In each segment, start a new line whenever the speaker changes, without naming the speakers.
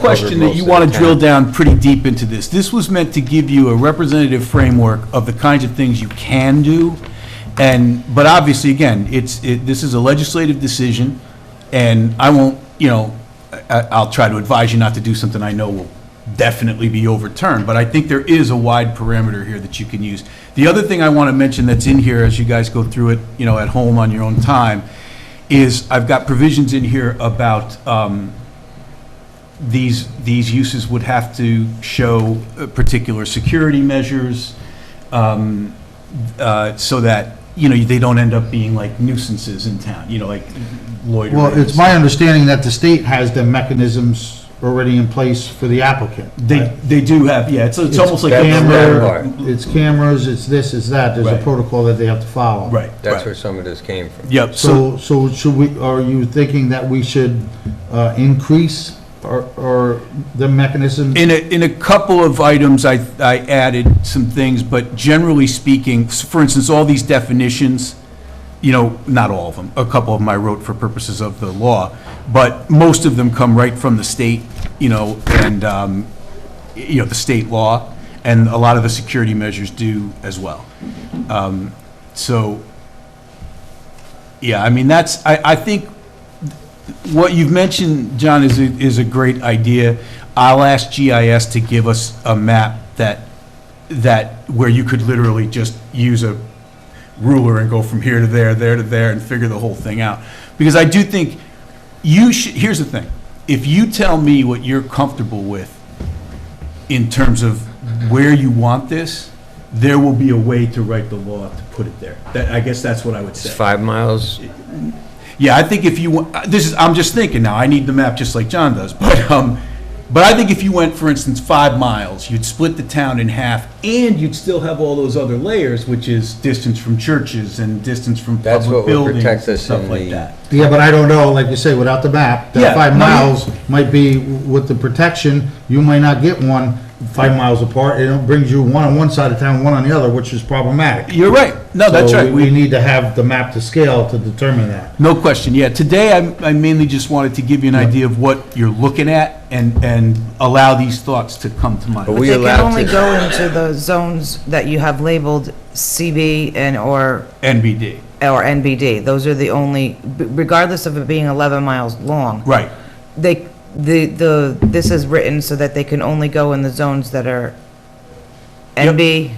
question that you want to drill down pretty deep into this. This was meant to give you a representative framework of the kinds of things you can do, and, but obviously, again, it's, it- this is a legislative decision, and I won't, you know, I- I'll try to advise you not to do something I know will definitely be overturned, but I think there is a wide parameter here that you can use. The other thing I want to mention that's in here, as you guys go through it, you know, at home on your own time, is I've got provisions in here about um, these, these uses would have to show uh, particular security measures, um, uh, so that, you know, they don't end up being like nuisances in town, you know, like loitering.
Well, it's my understanding that the state has the mechanisms already in place for the applicant.
They, they do have, yeah, it's, it's almost like. a
Camera, it's cameras, it's this, it's that, there's a
Right.
protocol that they have to follow.
Right,
That's where
right.
some of this came from.
Yep, so,
So, so should we, are you thinking that we should uh, increase or, or the mechanism?
in a, in a couple of items, I, I added some things, but generally speaking, s- for instance, all these definitions, you know, not all of them, a couple of them I wrote for purposes of the law, but most of them come right from the state, you know, and, um, y- you know, the state law, and a lot of the security measures do as well. Um, So, yeah, I mean, that's, I, I think what you've mentioned, John, is, a- is a great idea. I'll ask GIS to give us a map that, that, where you could literally just use a ruler and go from here to there, there to there, and figure the whole thing out. Because I do think you should, here's the thing, if you tell me what you're comfortable with in terms of where you want this, there will be a way to write the law to put it there. That, I guess that's what I would say.
It's five miles,
Yeah, I think if you, wa- this is, I'm just thinking now, I need the map just like John does, but, um, but I think if you went, for instance, five miles, you'd split the town in half, and you'd still have all those other layers, which is distance from churches and distance from
That's
public
what would
buildings
protect
and
us
stuff
in
like
the-
that.
Yeah, but I don't know, like you say, without the map,
Yeah,
that five
no, you-
miles might be, with the protection, you might not get one five miles apart. It brings you one on one side of town, one on the other, which is problematic.
You're right, no, that's
So
right,
We we
we,
need to have the map to scale to determine that.
no question, yeah, today, I I mainly just wanted to give you an idea of what you're looking at and, and allow these thoughts to come to mind.
But we
They can
allowed
only
to-
go into the zones that you have labeled CB and or,
NBD,
or NBD. Those are the only, regardless of it being 11 miles long.
right,
They, the, the, this is written so that they can only go in the zones that are
Yep.
NB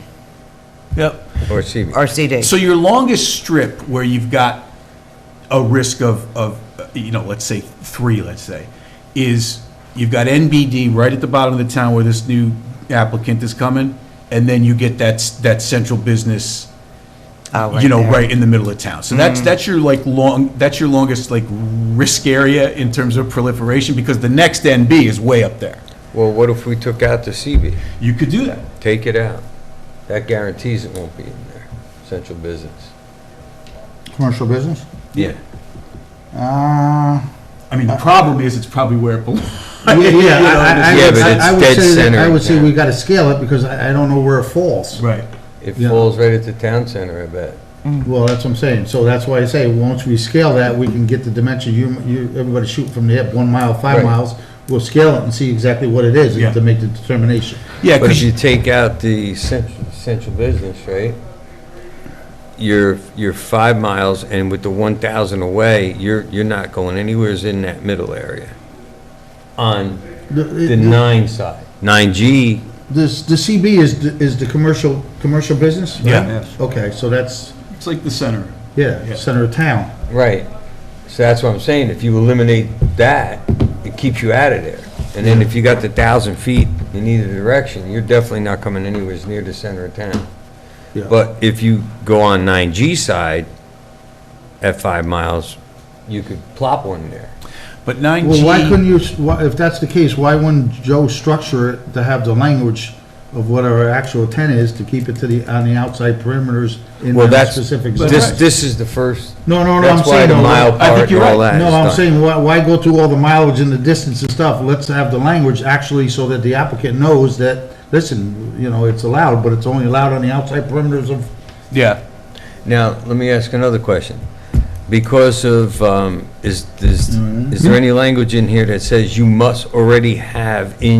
yep.
or CB.
or CD.
So your longest strip where you've got a risk of, of, uh, you know, let's say three, let's say, is you've got NBD right at the bottom of the town where this new applicant is coming, and then you get that, s- that central business,
Oh,
you know,
there.
right Mm. in the middle of town. So that's, that's your like long, that's your longest like risk area in terms of proliferation, because the next NB is way up there.
Well, what if we took out the CB?
You could do that.
Take it out. That guarantees it won't be in there, central business.
Commercial business?
Yeah.
Uh,
I mean, the problem is, it's probably where it belongs.
Yeah,
You know,
I- I- I
Yeah,
would-
but
I-
it's
I would
dead
say that-
center
I
in
would say
town.
we gotta scale it because I, I don't know where it falls.
Right.
It
Yeah.
falls right at the town center, I bet.
Well, that's what I'm saying. So that's why I say, once we scale that, we can get the dimension, you, you, everybody shoot from the hip, one mile, five
Right.
miles. We'll scale it and see exactly what it is
Yeah.
and to make the determination.
Yeah,
But if
because
you take out the central, central business, right? You're, you're five miles, and with the 1,000 away, you're, you're not going anywheres in that middle area. On the
The,
nine side. 9G,
this, the CB is, the- is the commercial, commercial business? right?
Yeah.
Okay, so that's,
it's like the center. Yeah.
yeah, center of town.
Right. So that's what I'm saying, if you eliminate that, it keeps you out of there. And then if you got the thousand feet in either direction, you're definitely not coming anywhere near the center of town.
Yeah.
But if you go on nine G side at five miles, you could plop one there.
But 9G.
Well, why couldn't you, s- why- if that's the case, why wouldn't Joe structure it to have the language of what our actual intent is to keep it to the, on the outside perimeters in
Well,
that
that's,
specific zone?
this, this is the first,
No, no, no, I'm
that's why
saying.
the
no,
mile
I think
part and
you're
all
right.
that is
No, I'm
done.
saying, why, why go through all the mileage and the distance and stuff? Let's have the language actually so that the applicant knows that, listen, you know, it's allowed, but it's only allowed on the outside perimeters of,
Yeah.
Now, let me ask another question. because of, um, is, is, is there any language in here that says you must already have in